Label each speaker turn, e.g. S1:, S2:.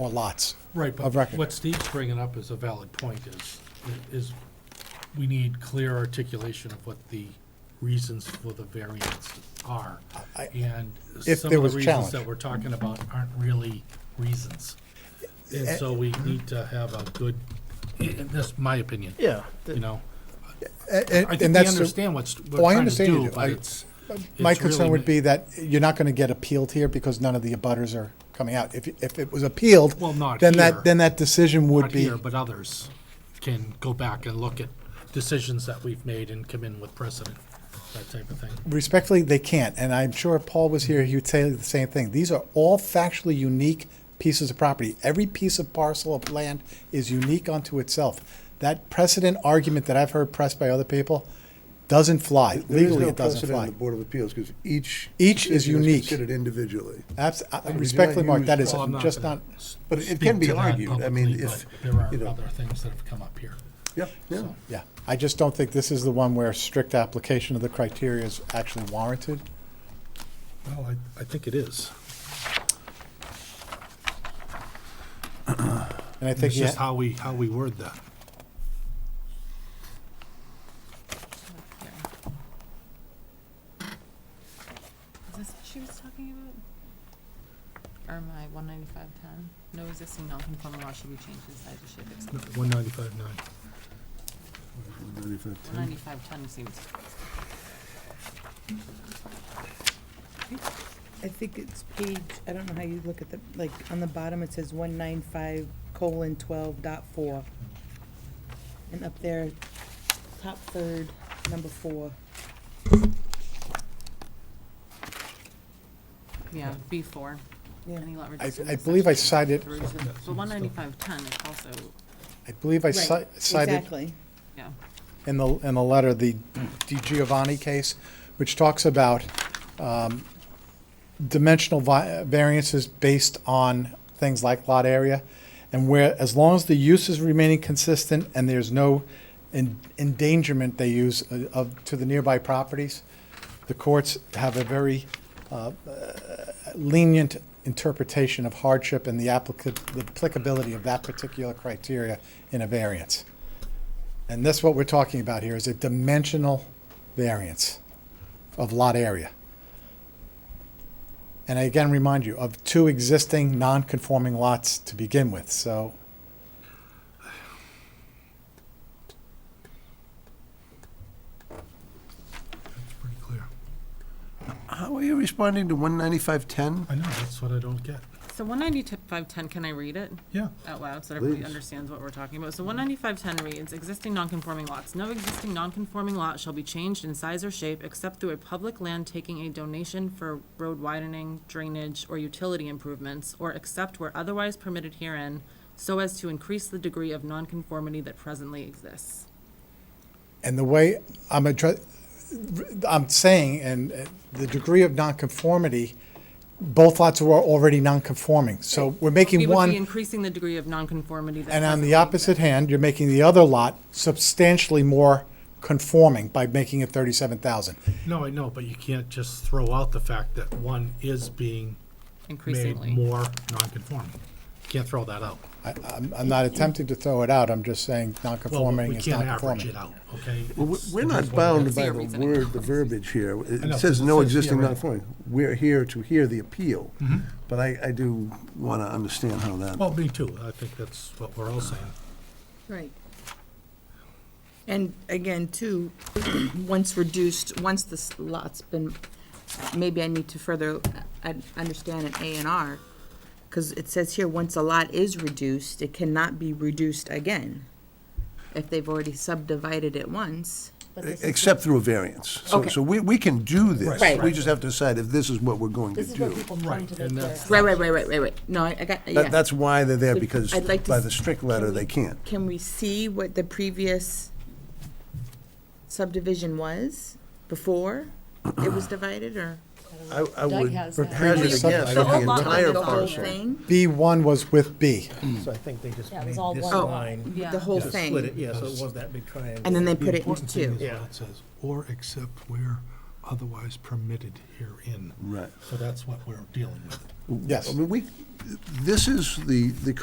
S1: or lots.
S2: Right, but
S1: Of record.
S2: what Steve's bringing up is a valid point, is, is we need clear articulation of what the reasons for the variance are.
S1: I-
S2: And
S1: If
S2: some
S1: there
S2: of
S1: was
S2: the reasons
S1: challenge.
S2: that we're talking about aren't really reasons.
S1: Eh,
S2: And so we need to have a good, that's my opinion,
S3: Yeah.
S2: you know?
S1: A-
S2: I
S1: And,
S2: think
S1: and
S2: we
S1: that's,
S2: understand what's, we're
S1: Oh, I
S2: trying to
S1: understand you
S2: do,
S1: do. I-
S2: but it's.
S1: my
S2: it's
S1: concern
S2: really-
S1: would be that you're not gonna get appealed here because none of the abutters are coming out. If, if it was appealed,
S2: Well, not
S1: then
S2: here.
S1: that, then that decision would
S2: not
S1: be,
S2: here, but others can go back and look at decisions that we've made and come in with precedent, that type of thing.
S1: respectfully, they can't. And I'm sure if Paul was here, he would say the same thing. These are all factually unique pieces of property. Every piece of parcel of land is unique unto itself. That precedent argument that I've heard pressed by other people doesn't fly.
S4: There is
S1: Legally,
S4: no
S1: it doesn't
S4: precedent in
S1: fly.
S4: The Board of Appeals, because each.
S1: Each is
S4: decision
S1: unique.
S4: Considered individually.
S1: Abs- I-
S4: mean,
S1: respectfully,
S4: you
S1: Mark,
S4: use-
S1: that is
S2: Well, I'm
S1: just
S2: gonna
S1: not,
S2: s-
S4: But it can
S2: speak
S4: be
S2: to that
S4: argued. I mean,
S2: publicly,
S4: if-
S2: but There
S4: you know-
S2: are other things that have come up here.
S4: Yeah, yeah.
S1: yeah. I just don't think this is the one where strict application of the criteria is actually warranted.
S2: Well, I, I think it is.
S1: And I think,
S2: It's just
S1: yeah,
S2: how we, how we word that.
S5: Is this what she was talking about? Or my one ninety-five ten? No existing non-conforming law should be changed in size or shape except.
S2: One ninety-five nine.
S5: One ninety-five ten seems,
S6: I think it's page, I don't know how you look at the, like, on the bottom, it says one nine five colon twelve dot four. And up there, top third, number four.
S5: yeah, B four.
S6: Yeah.
S5: Any lot
S1: I,
S5: reduced in
S1: I
S5: this
S1: believe I
S5: section
S1: cited,
S5: through to- But one ninety-five ten is also,
S1: I believe I
S6: Right,
S1: ci- cited
S6: Exactly.
S5: yeah,
S1: in the, in the letter, the Di Giovanni case, which talks about um, dimensional vi- variances based on things like lot area, and where, as long as the use is remaining consistent and there's no en- endangerment they use uh, of, to the nearby properties, the courts have a very uh, lenient interpretation of hardship and the applica- the applicability of that particular criteria in a variance. And that's what we're talking about here, is a dimensional variance of lot area. And I again remind you of two existing non-conforming lots to begin with, so
S2: That's pretty clear.
S4: How are you responding to one ninety-five ten?
S2: I know, that's what I don't get.
S5: so one ninety-five ten, can I read it?
S2: Yeah.
S5: out loud so everybody
S4: Please.
S5: understands what we're talking about. So one ninety-five ten reads, existing nonconforming lots, no existing nonconforming lot shall be changed in size or shape except through a public land taking a donation for road widening, drainage, or utility improvements, or except where otherwise permitted herein, so as to increase the degree of nonconformity that presently exists.
S1: And the way I'm address, I'm saying, and uh, the degree of nonconformity, both lots were already nonconforming. So we're
S5: We
S1: making
S5: would be
S1: one,
S5: increasing the degree of nonconformity that.
S1: and on
S5: presently
S1: the
S5: exists.
S1: opposite hand, you're making the other lot substantially more conforming by making it thirty-seven thousand.
S2: No, I know, but you can't just throw out the fact that one is being made
S5: Increasingly.
S2: more non-conforming. Can't throw that out.
S1: I'm, I'm not attempting to throw it out, I'm just saying
S2: Well,
S1: nonconforming
S2: we
S1: is
S2: can't average it
S1: nonconforming.
S2: out, okay?
S4: Well,
S2: It's-
S4: we're
S2: it
S4: not
S2: is what it
S4: bound
S2: is.
S4: by
S5: Your
S4: the
S5: reasoning.
S4: word, the verbiage here. It-
S2: I know,
S4: It says
S2: it says
S4: no
S2: Mm-hmm.
S4: existing
S2: here, right.
S4: non-conforming. We're here to hear the appeal. But I, I do want to understand how that.
S2: Well, me too. I think that's what we're all saying.
S6: Right. And again, too, once reduced, once this lot's been, maybe I need to further, I understand an A and R, because it says here, once a lot is reduced, it cannot be reduced again, if they've already subdivided it once.
S7: But this is,
S4: Except through a variance. So,
S6: Okay.
S4: so we, we can do this.
S6: Right.
S4: We just have to decide if this is what we're going to
S7: this is where
S4: do.
S7: people come
S2: Right,
S7: to the
S2: and
S7: clear.
S2: that's-
S6: Right, right, right, right, right, right. No, I I got, yeah.
S4: That, that's why they're there, because
S6: I'd like to
S4: by
S6: s-
S4: the strict letter,
S6: can we-
S4: they can't.
S6: Can we see what the previous subdivision was before it was divided, or?
S4: I, I
S7: Doug
S4: would
S7: has that.
S4: hazard a
S1: Previous sub-
S4: guess
S1: I
S4: that
S1: don't
S4: the
S1: have
S6: lot line,
S4: entire
S6: the whole
S4: parcel.
S6: thing?
S1: B one was with B.
S8: So I think they just
S7: Yeah, it
S8: made
S7: was
S8: this
S7: all one
S8: line.
S5: Oh, Yeah.
S6: The whole
S8: just Split it,
S6: thing?
S8: yeah, so it was that big triangle.
S6: And then they
S2: The
S6: put it into
S2: important thing
S6: two?
S2: is what
S8: Yeah.
S2: It says, or except where otherwise permitted herein.
S4: Right.
S2: So that's what we're dealing with.
S1: Yes.
S4: I mean, we, this is the, the